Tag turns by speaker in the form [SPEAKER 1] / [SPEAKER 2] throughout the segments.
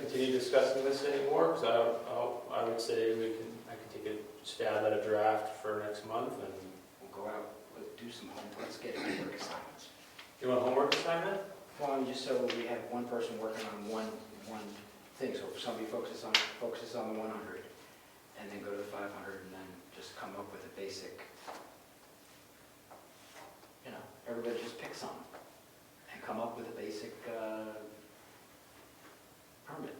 [SPEAKER 1] continue discussing this anymore, because I, I'll- I would say we can, I can take a stab at a draft for next month, and,
[SPEAKER 2] We'll go out, we'll do some homework, let's get it work assignments.
[SPEAKER 1] you want homework assignment?
[SPEAKER 2] Well, I mean, just so we have one person working on one, one thing, so if somebody focuses on, focuses on the one hundred, and then go to the five hundred, and then just come up with a basic, you know, everybody just pick some, and come up with a basic, uh, permit.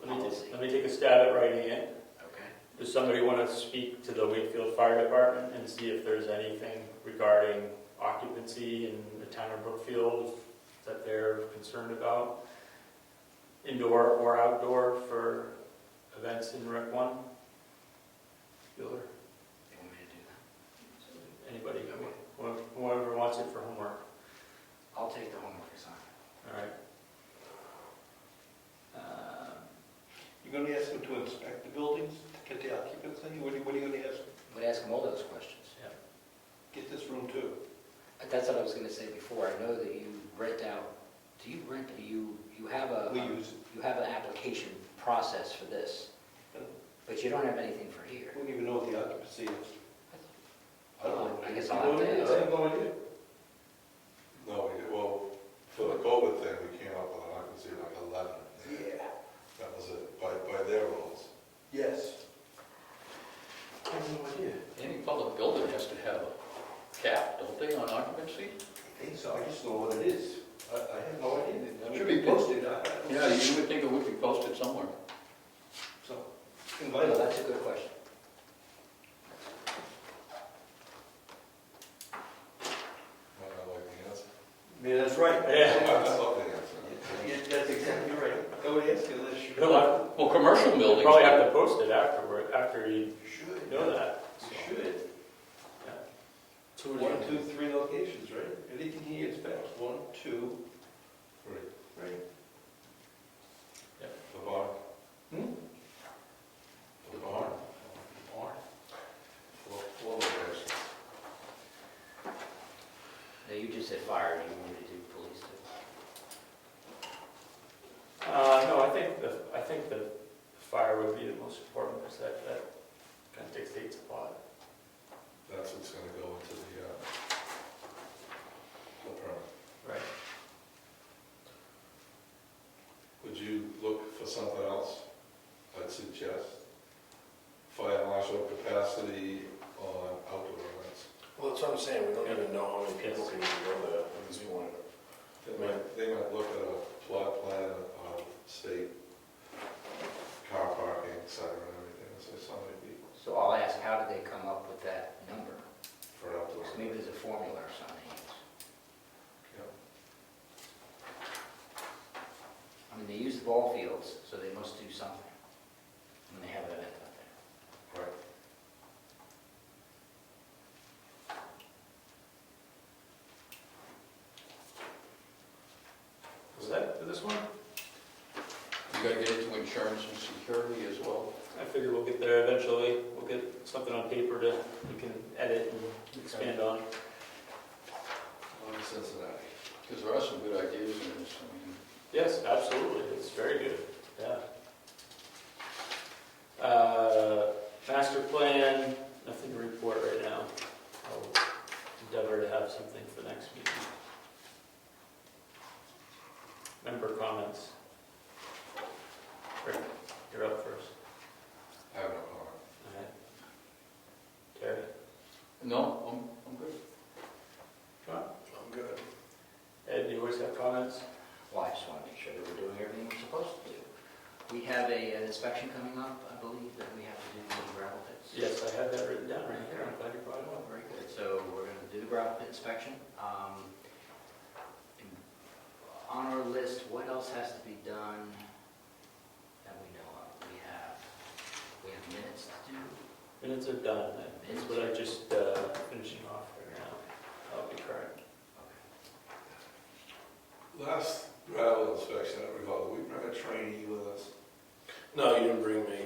[SPEAKER 1] Let me,
[SPEAKER 2] Policy.
[SPEAKER 1] ta- let me take a stab at writing it.
[SPEAKER 2] Okay.
[SPEAKER 1] Does somebody want to speak to the Wakefield Fire Department and see if there's anything regarding occupancy in the town of Brookfield that they're concerned about? Indoor or outdoor for events in Rec One? Bueller,
[SPEAKER 2] They want me to do that?
[SPEAKER 1] anybody, wh- whoever wants it for homework,
[SPEAKER 2] I'll take the homework assignment.
[SPEAKER 1] all right? Uh,
[SPEAKER 3] You're gonna ask them to inspect the buildings to get the occupancy? What are you, what are you gonna ask?
[SPEAKER 2] I'm gonna ask them all those questions.
[SPEAKER 1] yeah.
[SPEAKER 3] Get this room too.
[SPEAKER 2] That's what I was gonna say before, I know that you rent out, do you rent, do you, you have a, um,
[SPEAKER 3] We use,
[SPEAKER 2] you have an application process for this, but you don't have anything for here.
[SPEAKER 3] we don't even know what the occupancy is. I don't know.
[SPEAKER 2] I guess
[SPEAKER 3] You
[SPEAKER 2] I'll have
[SPEAKER 3] know
[SPEAKER 2] to
[SPEAKER 3] it?
[SPEAKER 2] ask.
[SPEAKER 3] I have no idea.
[SPEAKER 4] No, we- well, for the COVID thing, we came up with an occupancy of like eleven.
[SPEAKER 3] Yeah.
[SPEAKER 4] That was it, by, by their rules.
[SPEAKER 3] Yes. I have no idea.
[SPEAKER 5] Any public building has to have a cap, don't they, on occupancy?
[SPEAKER 3] I think so, I just know what it is. I, I have no idea. It
[SPEAKER 5] Should
[SPEAKER 3] should
[SPEAKER 5] be
[SPEAKER 3] be posted, I, I don't
[SPEAKER 5] Yeah,
[SPEAKER 3] see-
[SPEAKER 5] you would think it would be posted somewhere.
[SPEAKER 3] So,
[SPEAKER 2] Well,
[SPEAKER 3] invite
[SPEAKER 2] no,
[SPEAKER 3] them.
[SPEAKER 2] that's a good question.
[SPEAKER 4] Might not like the answer.
[SPEAKER 3] Yeah, that's right.
[SPEAKER 1] Yeah.
[SPEAKER 4] I love the answer.
[SPEAKER 3] Yeah, that's exactly right. Don't ask unless you.
[SPEAKER 1] You'll have-
[SPEAKER 5] Well, commercial
[SPEAKER 1] you'll
[SPEAKER 5] buildings.
[SPEAKER 1] probably have to post it afterward, after you
[SPEAKER 3] You Should.
[SPEAKER 1] know that.
[SPEAKER 3] You should.
[SPEAKER 1] so.
[SPEAKER 3] One, two, three locations, right? Anything he inspects, one, two,
[SPEAKER 4] Three,
[SPEAKER 3] right?
[SPEAKER 4] the barn.
[SPEAKER 3] Hmm?
[SPEAKER 4] The barn,
[SPEAKER 3] Barn.
[SPEAKER 4] four, four locations.
[SPEAKER 2] Now, you just said fire, you wanted to do police too.
[SPEAKER 1] Uh, no, I think the, I think the fire would be the most important, because that, that kind of dictates a lot.
[SPEAKER 4] That's what's gonna go into the, uh, the permit.
[SPEAKER 1] Right.
[SPEAKER 4] Would you look for something else? I'd suggest fire marshal capacity on outdoor events.
[SPEAKER 6] Well, that's what I'm saying, we don't
[SPEAKER 1] Yeah.
[SPEAKER 6] even know how many people
[SPEAKER 1] Yes.
[SPEAKER 6] can even go there, because we wanted to.
[SPEAKER 4] They might, they might look at a plot plan of state car parking, sign and everything, and say so many people
[SPEAKER 2] So I'll ask, how did they come up with that number?
[SPEAKER 4] for an outdoor.
[SPEAKER 2] So maybe
[SPEAKER 4] event.
[SPEAKER 2] there's a formula or something.
[SPEAKER 4] Yeah.
[SPEAKER 2] I mean, they use the ball fields, so they must do something when they have an event out there.
[SPEAKER 4] Right.
[SPEAKER 1] Was that for this one?
[SPEAKER 5] You gotta get into insurance and security as well.
[SPEAKER 1] I figure we'll get there eventually. We'll get something on paper to, we can edit and expand on.
[SPEAKER 4] On Cincinnati.
[SPEAKER 5] Because there are some good ideas in this, I mean,
[SPEAKER 1] Yes, absolutely, it's very good, yeah. Uh, master plan, nothing to report right now. I'll endeavor to have something for next meeting. Member comments. Rick, you're up first.
[SPEAKER 4] I have no comment.
[SPEAKER 1] All right. Terry?
[SPEAKER 5] no, I'm, I'm good.
[SPEAKER 6] I'm good.
[SPEAKER 1] Ed, you always have comments?
[SPEAKER 2] Well, I just want to make sure that we're doing everything we're supposed to do. We have a, an inspection coming up, I believe, that we have to do the gravel pits.
[SPEAKER 1] Yes, I had that written down right here, I'm glad you brought it
[SPEAKER 2] Oh,
[SPEAKER 1] up.
[SPEAKER 2] Very good, so we're going to do the gravel pit inspection. Um, On our list, what else has to be done that we know of? We have, we have minutes to do.
[SPEAKER 1] Minutes are done, that's what I just, uh, finishing off right now. That'll be correct.
[SPEAKER 2] Okay.
[SPEAKER 4] Last gravel inspection, I recall, did we bring a trainee with us?
[SPEAKER 6] No, Oh, you didn't bring me.